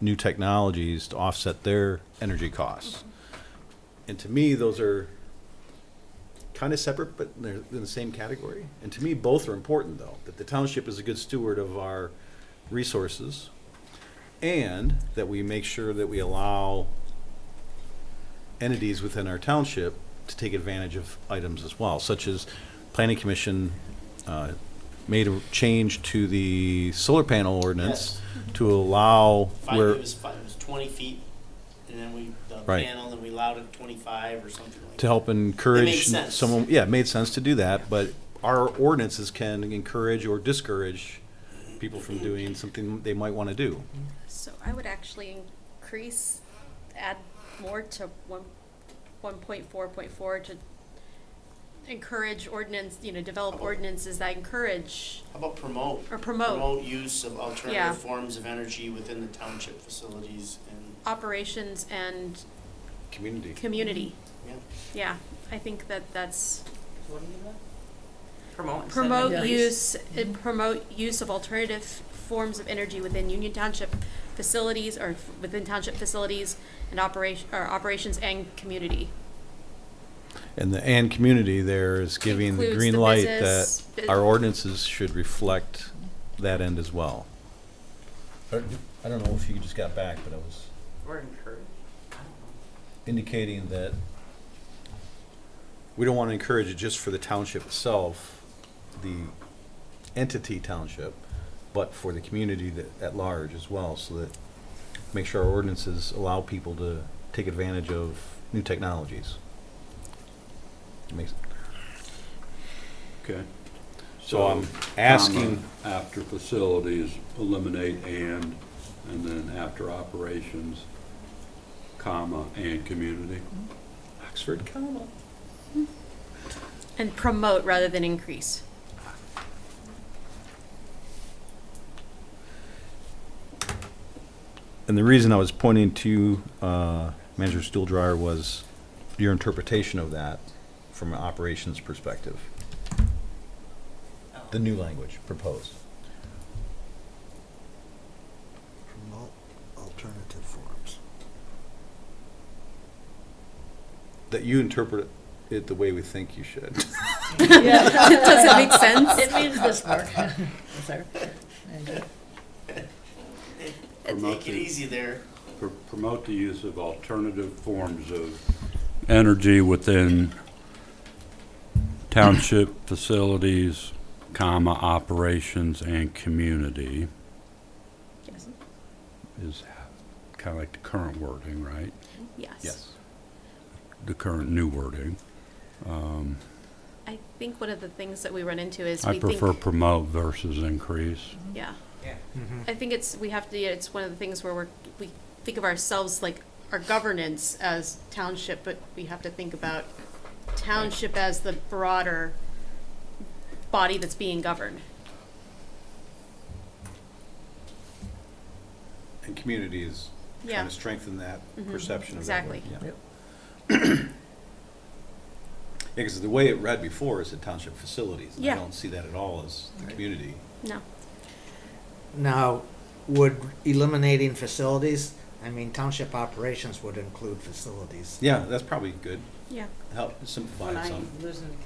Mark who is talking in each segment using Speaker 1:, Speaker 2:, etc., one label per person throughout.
Speaker 1: new technologies to offset their energy costs. And to me, those are kind of separate, but they're in the same category. And to me, both are important, though, that the township is a good steward of our resources and that we make sure that we allow entities within our township to take advantage of items as well, such as planning commission uh, made a change to the solar panel ordinance to allow
Speaker 2: Five,
Speaker 1: where,
Speaker 2: it was five, it was twenty feet, and then we, the
Speaker 1: Right.
Speaker 2: panel, and we allowed it twenty-five or something like
Speaker 1: to
Speaker 2: that.
Speaker 1: help encourage
Speaker 2: sense.
Speaker 1: someone, yeah, it made sense to do that, but our ordinances can encourage or discourage people from doing something they might want to do.
Speaker 3: So I would actually increase, add more to one, one point four point four to encourage ordinance, you know, develop ordinances that encourage,
Speaker 2: How about promote?
Speaker 3: Or promote.
Speaker 2: Promote use of
Speaker 3: Yeah.
Speaker 2: alternative forms of energy within the township facilities and,
Speaker 3: operations and
Speaker 1: Community.
Speaker 3: community.
Speaker 2: yeah.
Speaker 3: Yeah, I think that that's,
Speaker 2: What do you got?
Speaker 4: Promote. instead of
Speaker 3: promote
Speaker 4: increase.
Speaker 3: use, uh, promote use of alternative forms of energy within Union Township facilities or f- within township facilities and operation, or operations and community.
Speaker 1: And the and community there is giving the
Speaker 3: Includes
Speaker 1: green
Speaker 3: the
Speaker 1: light
Speaker 3: business,
Speaker 1: that
Speaker 3: bu-
Speaker 1: our ordinances should reflect that end as well. I don't know if you just got back, but I was
Speaker 4: Or encourage.
Speaker 1: indicating that we don't want to encourage it just for the township itself, the entity township, but for the community that, at large as well, so that, make sure our ordinances allow people to take advantage of new technologies. Makes,
Speaker 5: Okay.
Speaker 1: so um, I'm asking,
Speaker 5: comma, After facilities, eliminate and, and then after operations, comma, and community.
Speaker 1: Oxford comma.
Speaker 3: And promote rather than increase.
Speaker 1: And the reason I was pointing to uh, Manager Stool Dryer was your interpretation of that from an operations perspective. The new language proposed.
Speaker 6: promote alternative forms.
Speaker 1: That you interpret it the way we think you should.
Speaker 3: Does it make sense?
Speaker 4: It means this part. Sorry.
Speaker 2: And
Speaker 5: Promote
Speaker 2: Take it
Speaker 5: the-
Speaker 2: easy there.
Speaker 5: Pr- Promote the use of alternative forms of energy within township facilities, comma, operations, and community
Speaker 3: Yes.
Speaker 5: is kind of like the current wording, right?
Speaker 3: Yes.
Speaker 5: The current new wording.
Speaker 3: I think one of the things that we run into is
Speaker 5: I
Speaker 3: we
Speaker 5: prefer
Speaker 3: think,
Speaker 5: promote versus increase.
Speaker 3: yeah. I think it's we have to. yeah, It's one of the things where we're we think of ourselves like our governance as township, but we have to think about township as the broader body that's being governed.
Speaker 1: And community is
Speaker 3: Yeah.
Speaker 1: trying to strengthen that
Speaker 3: Mhm,
Speaker 1: perception of that word.
Speaker 3: exactly.
Speaker 1: Yeah. Yeah, because the way it read before is at township facilities. and I
Speaker 3: Yeah.
Speaker 1: don't see that at all as the community.
Speaker 3: No.
Speaker 7: Now, would eliminating facilities, I mean, township operations would include facilities.
Speaker 1: Yeah, that's probably good.
Speaker 3: Yeah.
Speaker 1: Help simplify
Speaker 4: When
Speaker 1: it
Speaker 4: I
Speaker 1: some.
Speaker 4: losing the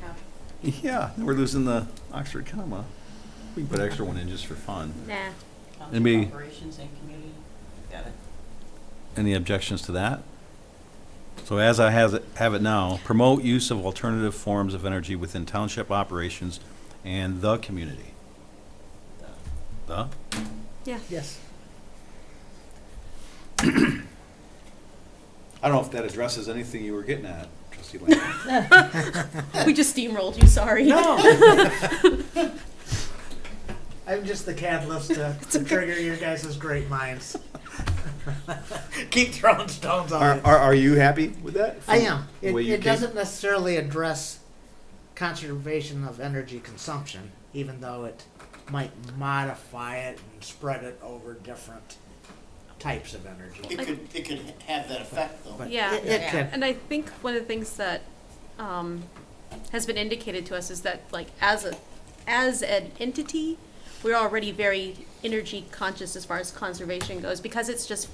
Speaker 4: count.
Speaker 1: Yeah, we're losing the Oxford comma. We can put an extra one in just for fun.
Speaker 3: Nah.
Speaker 4: Township
Speaker 1: Anybody-
Speaker 4: Operations and community. Got it.
Speaker 1: Any objections to that? So as I has it, have it now, promote use of alternative forms of energy within township operations and the community. The?
Speaker 3: Yeah.
Speaker 4: Yes.
Speaker 1: I don't know if that addresses anything you were getting at, trustee Lamb.
Speaker 3: We just steamrolled you. Sorry.
Speaker 7: No! I'm just the catalyst to, to trigger your guys' great minds. Keep throwing stones on
Speaker 1: Are,
Speaker 7: it.
Speaker 1: are, are you happy with that?
Speaker 7: I am. It,
Speaker 1: Way you
Speaker 7: it
Speaker 1: came-
Speaker 7: doesn't necessarily address conservation of energy consumption, even though it might modify it and spread it over different types of energy.
Speaker 2: It could, it could ha- have that effect though.
Speaker 7: But
Speaker 3: Yeah.
Speaker 7: it, it could.
Speaker 3: And I think one of the things that um, has been indicated to us is that, like, as a as an entity, we're already very energy conscious as far as conservation goes because it's just